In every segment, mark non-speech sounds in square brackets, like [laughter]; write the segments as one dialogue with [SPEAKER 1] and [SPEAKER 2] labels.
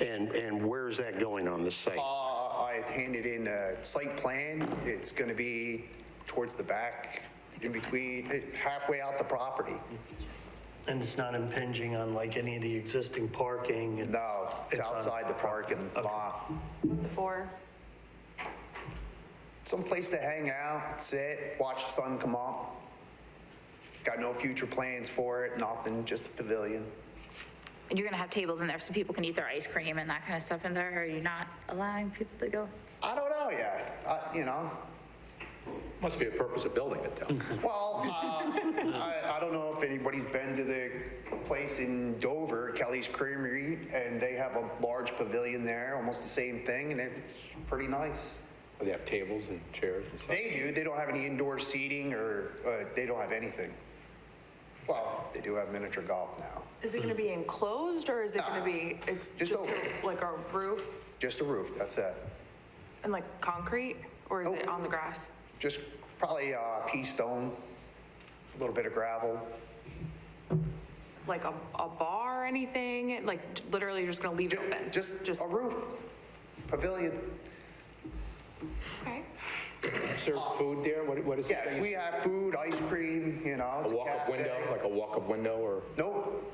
[SPEAKER 1] And, and where is that going on the site?
[SPEAKER 2] Uh, I handed in a site plan. It's going to be towards the back, in between, eh, halfway out the property.
[SPEAKER 3] And it's not impinging on like any of the existing parking? and-
[SPEAKER 2] No, it's
[SPEAKER 3] It's on-
[SPEAKER 2] outside the parking lot.
[SPEAKER 4] Before,
[SPEAKER 2] Someplace to hang out, sit, watch the sun come up. Got no future plans for it, nothing, just a pavilion.
[SPEAKER 5] And you're going to have tables in there so people can eat their ice cream and that kind of stuff in there? Are you not allowing people to go?
[SPEAKER 2] I don't know yet, I- you know?
[SPEAKER 6] Must be a purpose of building it, though.
[SPEAKER 2] Well, uh, I I don't know if anybody's been to the place in Dover, Kelly's Creamery, and they have a large pavilion there, almost the same thing, and it's pretty nice.
[SPEAKER 6] They have tables and chairs and stuff.
[SPEAKER 2] They do, they don't have any indoor seating or, uh, they don't have anything. Well, they do have miniature golf now,
[SPEAKER 4] is it going to be enclosed or is it going to be, it's
[SPEAKER 2] Just
[SPEAKER 4] just
[SPEAKER 2] open.
[SPEAKER 4] a- like a roof
[SPEAKER 2] just a roof, that's it.
[SPEAKER 4] and like concrete? Or is it
[SPEAKER 2] Nope.
[SPEAKER 4] on the grass?
[SPEAKER 2] Just probably uh, pea stone, a little bit of gravel.
[SPEAKER 4] Like a, a bar or anything? Like literally you're just going to leave it
[SPEAKER 2] Ju-
[SPEAKER 4] open?
[SPEAKER 2] Just
[SPEAKER 4] Just,
[SPEAKER 2] a roof, pavilion.
[SPEAKER 4] okay.
[SPEAKER 6] Serve food there? What What is it?
[SPEAKER 2] Yeah, we have food, ice cream, you know. it's
[SPEAKER 6] A walk-up
[SPEAKER 2] cafe.
[SPEAKER 6] window, like a walk-up window, or
[SPEAKER 2] Nope,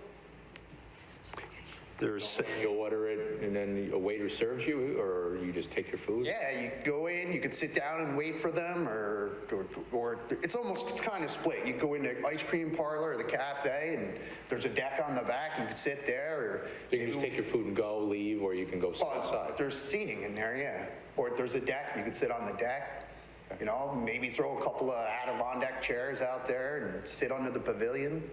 [SPEAKER 1] There's,
[SPEAKER 6] you order it and then a waiter serves you, or you just take your food?
[SPEAKER 2] Yeah, you go in, you could sit down and wait for them, or, or, or it's almost kind of split. You go in the ice cream parlor or the cafe, and there's a deck on the back, you can sit there, or.
[SPEAKER 6] You can just take your food and go, leave, or you can go sit
[SPEAKER 2] Well,
[SPEAKER 6] outside.
[SPEAKER 2] There's seating in there, yeah. Or if there's a deck, you could sit on the deck, you know, maybe throw a couple of Adirondack chairs out there and sit under the pavilion.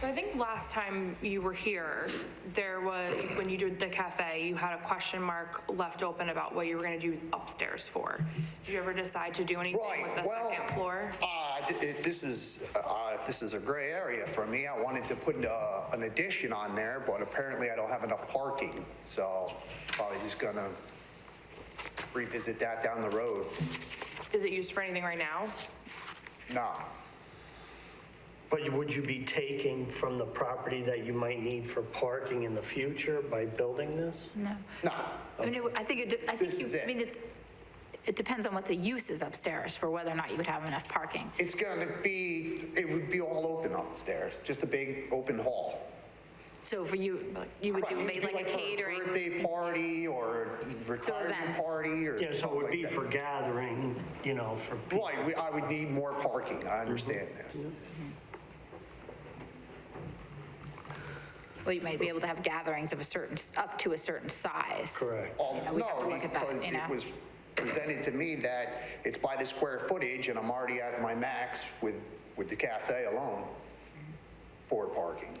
[SPEAKER 4] So I think last time you were here, there was, when you did the cafe, you had a question mark left open about what you were going to do upstairs for. Did you ever decide to do anything
[SPEAKER 2] Right,
[SPEAKER 4] with the
[SPEAKER 2] well,
[SPEAKER 4] second floor?
[SPEAKER 2] uh, th- it- this is, uh, this is a gray area for me. I wanted to put uh, an addition on there, but apparently I don't have enough parking, so probably just gonna revisit that down the road.
[SPEAKER 4] Is it used for anything right now?
[SPEAKER 2] No,
[SPEAKER 3] But you- would you be taking from the property that you might need for parking in the future by building this?
[SPEAKER 2] Mm.
[SPEAKER 5] No.
[SPEAKER 2] no,
[SPEAKER 5] I mean, it- I think it, de- I
[SPEAKER 2] This
[SPEAKER 5] think,
[SPEAKER 2] is
[SPEAKER 5] you-
[SPEAKER 2] it.
[SPEAKER 5] I mean, it's, it depends on what the use is upstairs for whether or not you would have enough parking.
[SPEAKER 2] it's gonna be, it would be all open upstairs, just a big open hall.
[SPEAKER 5] So for you, you would do
[SPEAKER 2] Right,
[SPEAKER 5] maybe
[SPEAKER 2] it'd be
[SPEAKER 5] like a
[SPEAKER 2] for
[SPEAKER 5] catering.
[SPEAKER 2] Birthday party or retirement
[SPEAKER 5] events.
[SPEAKER 2] party or
[SPEAKER 3] Yeah, so it
[SPEAKER 2] something
[SPEAKER 3] would be
[SPEAKER 2] like
[SPEAKER 3] for
[SPEAKER 2] that.
[SPEAKER 3] gathering, you know, for people.
[SPEAKER 2] Right, we- I would need more parking, I understand
[SPEAKER 3] Mm-hmm.
[SPEAKER 2] this.
[SPEAKER 5] Well, you might be able to have gatherings of a certain, s- up to a certain size.
[SPEAKER 3] Correct.
[SPEAKER 2] Um,
[SPEAKER 5] Yeah, we have to
[SPEAKER 2] No,
[SPEAKER 5] look at that,
[SPEAKER 2] because
[SPEAKER 5] you know?
[SPEAKER 2] it was presented to me that it's by the square footage, and I'm already at my max with, with the cafe alone for parking,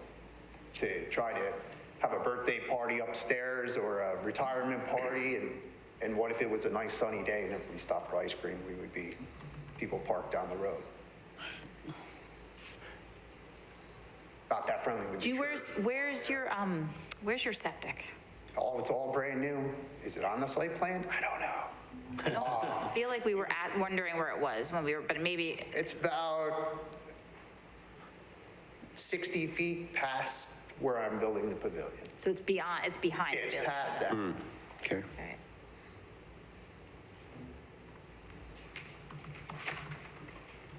[SPEAKER 2] to try to have a birthday party upstairs or a retirement party, and, and what if it was a nice sunny day and everybody stopped for ice cream? We would be, people parked down the road. Not that friendly with the
[SPEAKER 5] Do you,
[SPEAKER 2] church.
[SPEAKER 5] where's, where's your, um, where's your septic?
[SPEAKER 2] Oh, it's all brand new. Is it on the site plan? I don't know.
[SPEAKER 5] I feel like we were at, wondering where it was when we were, but maybe,
[SPEAKER 2] It's about 60 feet past where I'm building the pavilion.
[SPEAKER 5] so it's beyond, it's behind.
[SPEAKER 2] It's
[SPEAKER 5] really.
[SPEAKER 2] past that.
[SPEAKER 1] okay.
[SPEAKER 5] Alright.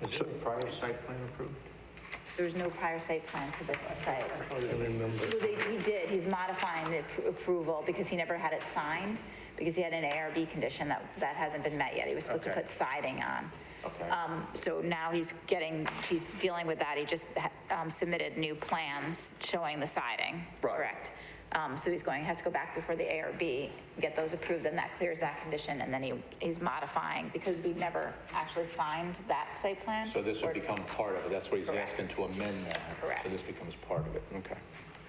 [SPEAKER 6] Is there a prior site plan approved?
[SPEAKER 5] There was no prior site plan for this site. Well, they- He did, he's modifying the appro- approval because he never had it signed, because he had an ARB condition that, that hasn't been met yet. He was supposed to
[SPEAKER 6] Okay.
[SPEAKER 5] put siding on.
[SPEAKER 6] Okay.
[SPEAKER 5] Um, So now he's getting, he's dealing with that. He just ha- um, submitted new plans showing the siding,
[SPEAKER 2] Right.
[SPEAKER 5] correct? Um, So he's going, has to go back before the ARB, get those approved, then that clears that condition, and then he, he's modifying because we've never actually signed that site plan.
[SPEAKER 6] So this
[SPEAKER 5] Or-
[SPEAKER 6] would become part of it, that's what he's
[SPEAKER 5] Correct.
[SPEAKER 6] asking to amend that.
[SPEAKER 5] Correct.
[SPEAKER 6] So this becomes part of it, okay.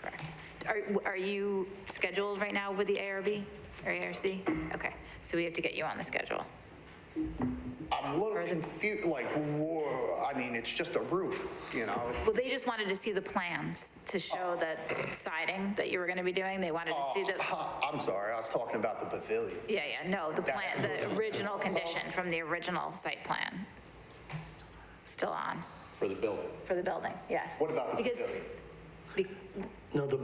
[SPEAKER 5] Correct. Are, are you scheduled right now with the ARB or ARC? Okay, so we have to get you on the schedule.
[SPEAKER 2] I'm a
[SPEAKER 5] Or
[SPEAKER 2] little
[SPEAKER 5] the-
[SPEAKER 2] confused, like, whoa, I mean, it's just a roof, you know? it's-
[SPEAKER 5] Well, they just wanted to see the plans to show the siding that you were going to be doing. They wanted to see the,
[SPEAKER 2] [laughs] I'm sorry, I was talking about the pavilion.
[SPEAKER 5] yeah, yeah, no, the plan, the original condition from the original site plan. Still on
[SPEAKER 6] For the building.
[SPEAKER 5] for the building, yes.
[SPEAKER 2] What about the
[SPEAKER 5] Because
[SPEAKER 2] pavilion?
[SPEAKER 5] be-
[SPEAKER 3] No, the